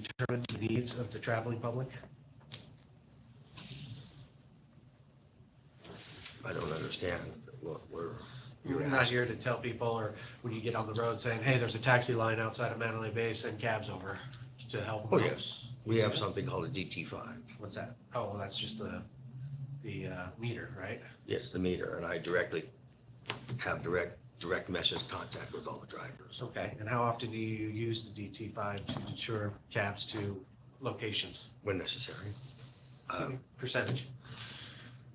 determine the needs of the traveling public? I don't understand what we're. You're not here to tell people, or when you get on the road saying, hey, there's a taxi line outside of Manalay Bay, send cabs over to help. Oh, them. yes. We have something called a DT five. What's that? Oh, well, that's just the, the uh, meter, right? Yes, the meter, and I directly have direct, direct message contact with all the drivers. Okay, and how often do you use the DT five to deter cabs to locations? when necessary. Uh, Percentage?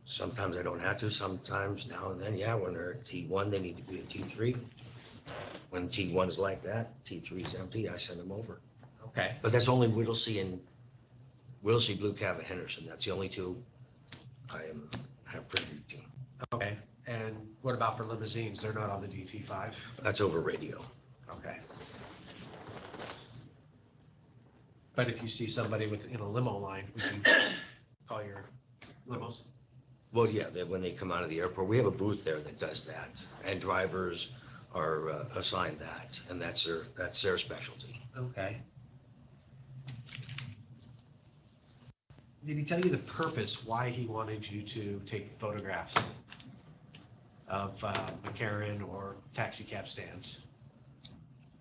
Sometimes I don't have to, sometimes now and then, yeah, when they're at T1, they need to be at T3. When T1's like that, T3's empty, I send them over. Okay, But that's only Whittlesey and, Whittlesey, Blue Cab, and Henderson, that's the only two I am, have privy to. okay. And what about for limousines? They're not on the DT five? That's over radio. Okay. But if you see somebody with, in a limo line, would you call your limos? Well, yeah, that when they come out of the airport, we have a booth there that does that, and drivers are uh, assigned that, and that's their, that's their specialty. Okay. Did he tell you the purpose, why he wanted you to take photographs of uh, McCarran or taxi cab stands?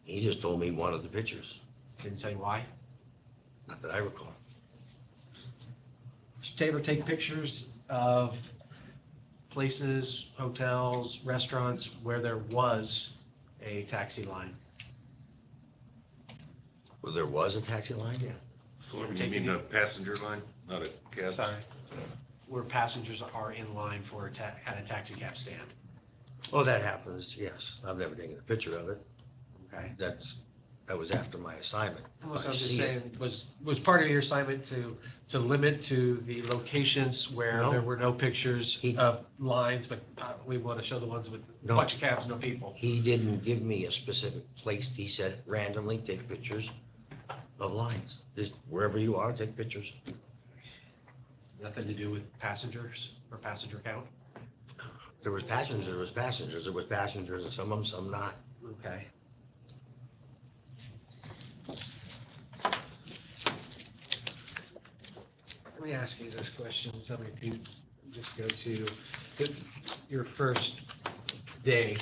He just told me one of the pictures. Didn't tell you why? Not that I recall. Taylor, take pictures of places, hotels, restaurants where there was a taxi line. Well, there was a taxi line? Yeah. You mean a passenger line, not a cab? Sorry. Where passengers are in line for a ta, at a taxi cab stand, Oh, that happens, yes. I've never taken a picture of it. okay? That's, that was after my assignment. I was I just see it. saying, was, was part of your assignment to, to limit to the locations where No. there were no pictures He- of lines, but uh, we want to show the ones with a No. bunch of cabs, no people. He didn't give me a specific place. He said randomly, take pictures of lines. Just wherever you are, take pictures. Nothing to do with passengers or passenger count, There was passengers, there was passengers, there was passengers, and some of them, some not. okay? Let me ask you this question, tell me if you just go to the- your first day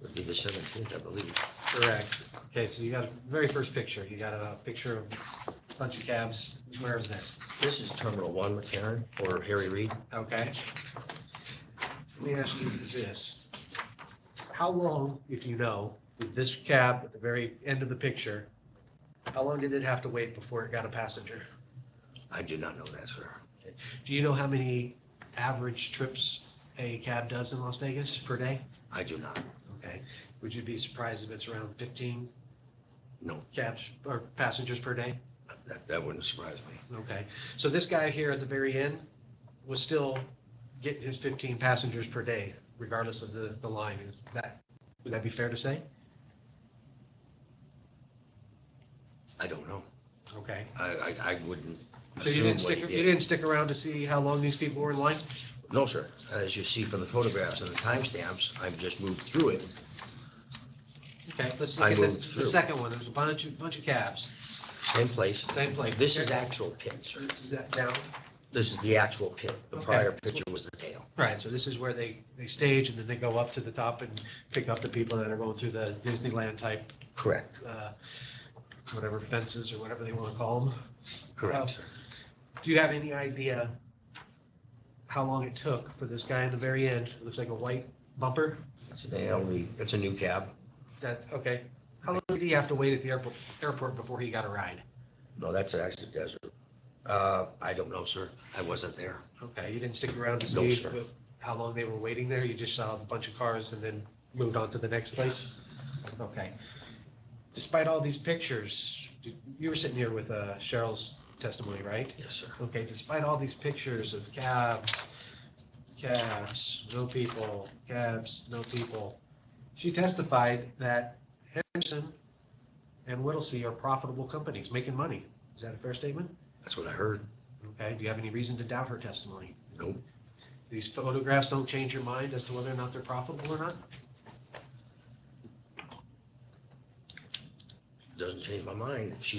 It would be the seventeenth, I believe. Correct. Okay, so you got a very first picture. You got a picture of a bunch of cabs. Where is this? This is Terminal One, McCarran, or Harry Reid. Okay. Let me ask you this. How long, if you know, did this cab at the very end of the picture, how long did it have to wait before it got a passenger? I do not know that, sir. Do you know how many average trips a cab does in Las Vegas per day? I do not. Okay. Would you be surprised if it's around 15 No, cabs or passengers per day? that, that wouldn't surprise me. Okay, so this guy here at the very end was still getting his fifteen passengers per day, regardless of the, the line, is that, would that be fair to say? I don't know. Okay, I, I, I wouldn't. so you assume didn't what stick, he you did. didn't stick around to see how long these people were in line? No, sir. As you see from the photographs and the timestamps, I've just moved through it. Okay, let's look I at moved this, the through. second one, there's a bunch of, bunch of cabs, Same place. same place. This is actual pit, sir. This is that down, This is the actual pit. The Okay. prior picture was the tail. right, so this is where they, they stage and then they go up to the top and pick up the people that are going through the Disneyland type, Correct. uh, whatever fences or whatever they want to call them. Correct, sir. Do you have any idea how long it took for this guy in the very end? It looks like a white bumper. It's an ALE. It's a new cab. That's okay. How long did he have to wait at the airport, airport before he got a ride? No, that's actually desert. Uh, I don't know, sir. I wasn't there. Okay, you didn't stick around to No, see sir. what- how long they were waiting there? You just saw a bunch of cars and then moved on to the next place? Okay. Despite all these pictures, you were sitting here with uh, Cheryl's testimony, right? Yes, sir. Okay, despite all these pictures of cabs, cabs, no people, cabs, no people, she testified that Henderson and Whittlesey are profitable companies, making money. Is that a fair statement? That's what I heard. Okay, do you have any reason to doubt her testimony? Nope. These photographs don't change your mind as to whether or not they're profitable or not? Doesn't change my mind. If she